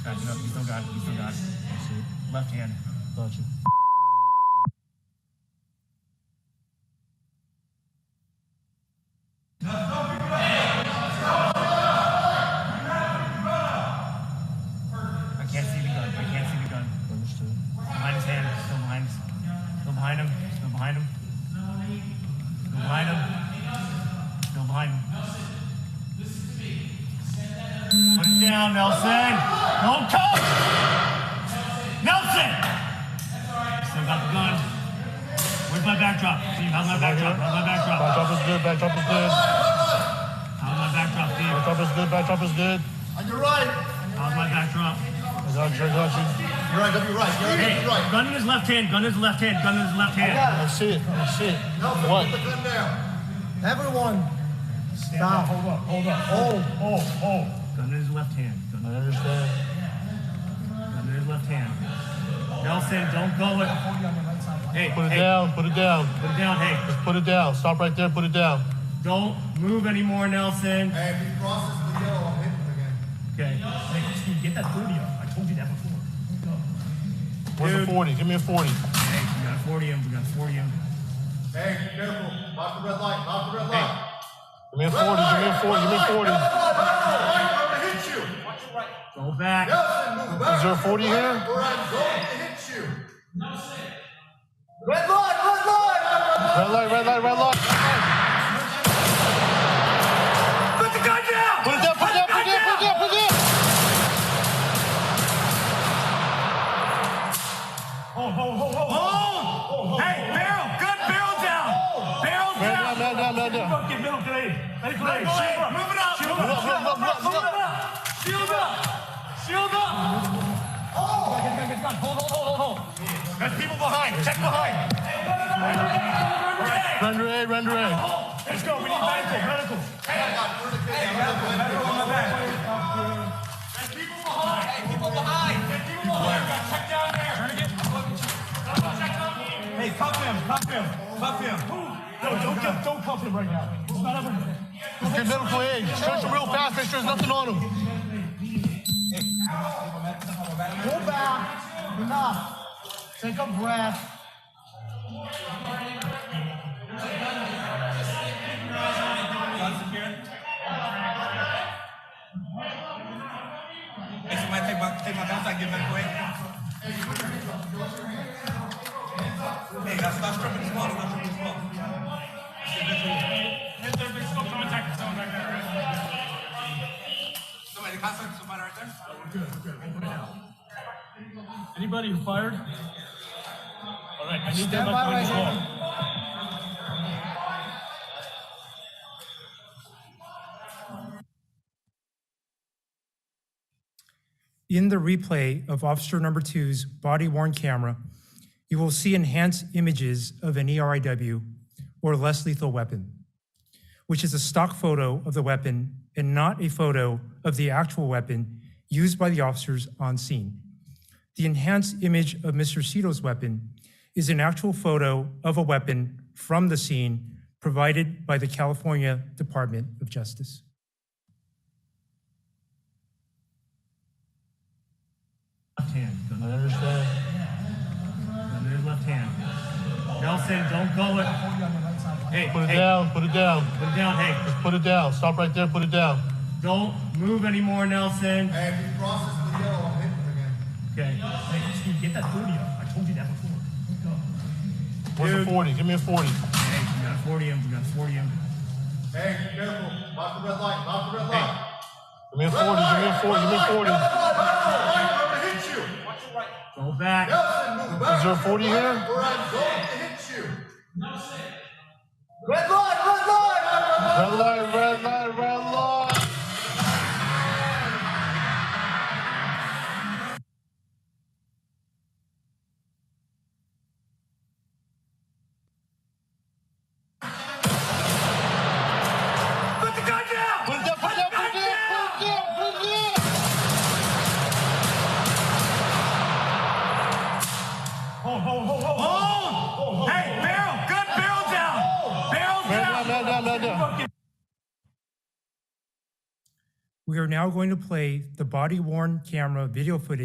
Guys, you, know, you still got it. You still got it. Left hand. Got you. I can't see the gun. I can't see the gun. Understood. Behind his hand. Still behind. Still behind him. Still behind him. Still behind him. Still behind him. Put it down, Nelson. Don't coach. Nelson. Still got the gun. Where's my backdrop? Steve, how's my backdrop? How's my backdrop? Backdrop is good. Backdrop is good. How's my backdrop, Steve? Backdrop is good. Backdrop is good. On your right. How's my backdrop? I got you. I got you. You're right. Don't be right. You're right. Hey, You're right. gun in his left hand, gun in his left hand, gun in his left hand. I see it. I see it. Nelson, What? put the gun down. Everyone, Stop. Stop. Hold up, hold up. hold. Hold, hold. Gun in his left hand. Gun, I understand. gun in his left hand. Nelson, don't go with. Hey, Put it hey, down. Put it down. put it down. Hey, Just put it down. Stop right there. Put it down. don't move anymore, Nelson. Hey, if he crosses the yellow, I'm hitting him again. Okay. Hey, Steve, get that 40 up. I told you that before. Where's Dude. the 40? Give me a 40. Hey, we got 40 him, we got 40 him. Hey, be careful. Lock the red light. Lock the red light. Give me a 40. Red light. Give me a 40. Give me a 40. Red light. Red light. I'm gonna hit you. Go back. Nelson, move back. Is there a 40 here? Or I'm going to hit you. Red light. Red light. Red light. Red light. Red light. Red light. Put the gun down! Put it down. Put it down. Put it down. Put it down. Put it down. Hold! Oh, Hey, barrel! Good barrel down! Barrel Man down! down. Man down. Man down. Fucking middle blade. Middle blade. Shield up. Move it up. Shield Move it up, move it up, move it up. Move it up. Shield up. Shield up. Oh! Get gun, get gun. Hold, hold, hold, hold, hold. There's people behind. Check behind. Hey, Render A. Render A. Let's go. We need medical. Medical. There's people behind. Hey, people behind. There's people behind. We gotta check down there. Trying to get. Someone check down here. Hey, cuff him, cuff him, cuff him. No, don't, don't, don't cuff him right now. It's not ever. Okay, medical aid. Stretch him real fast. Make sure there's nothing on him. pull back. Enough. Take a breath. Guns in here. Hey, somebody take my, take my guns, I give them away. Hey, guys, stop stripping this wall, stop stripping this wall. Somebody, contact somebody right there. Anybody who fired? All right, I need Stand them by behind the right wall. In the replay of Officer Number Two's body worn camera, you will see enhanced images of an E ERIW or less lethal weapon, which is a stock photo of the weapon and not a photo of the actual weapon used by the officers on scene. The enhanced image of Mr. Cito's weapon is an actual photo of a weapon from the scene provided by the California Department of Justice. Left hand. Gun I understand. Gun in his left hand. Nelson, don't go with. Hey, Put it hey, down. Put it down. put it down. Hey, Put it down. Stop right there. Put it down. don't move anymore, Nelson. Hey, if he crosses the yellow, I'm hitting him again. Okay. Hey, Steve, get that 40 up. I told you that before. Where's Dude. the 40? Give me a 40. Hey, we got 40 him. We got 40 him. Hey, be careful. Lock the red light. Lock the red light. Give me a 40. Give me a 40. Give me a 40. Red light. I'm gonna hit you. Go back. Nelson, move back. Is there a 40 here? Or I'm going to hit you. Red light. Red light. Red light. Red light, red light, red light. Put the gun down! Put it down, put it down, put it down, put it down, put it down. Hold, hold, hold, hold. Hold! Hey, barrel. Good barrel down. Barrel Man down. down, man down, man down. Fucking We are now going to play the body worn camera video footage.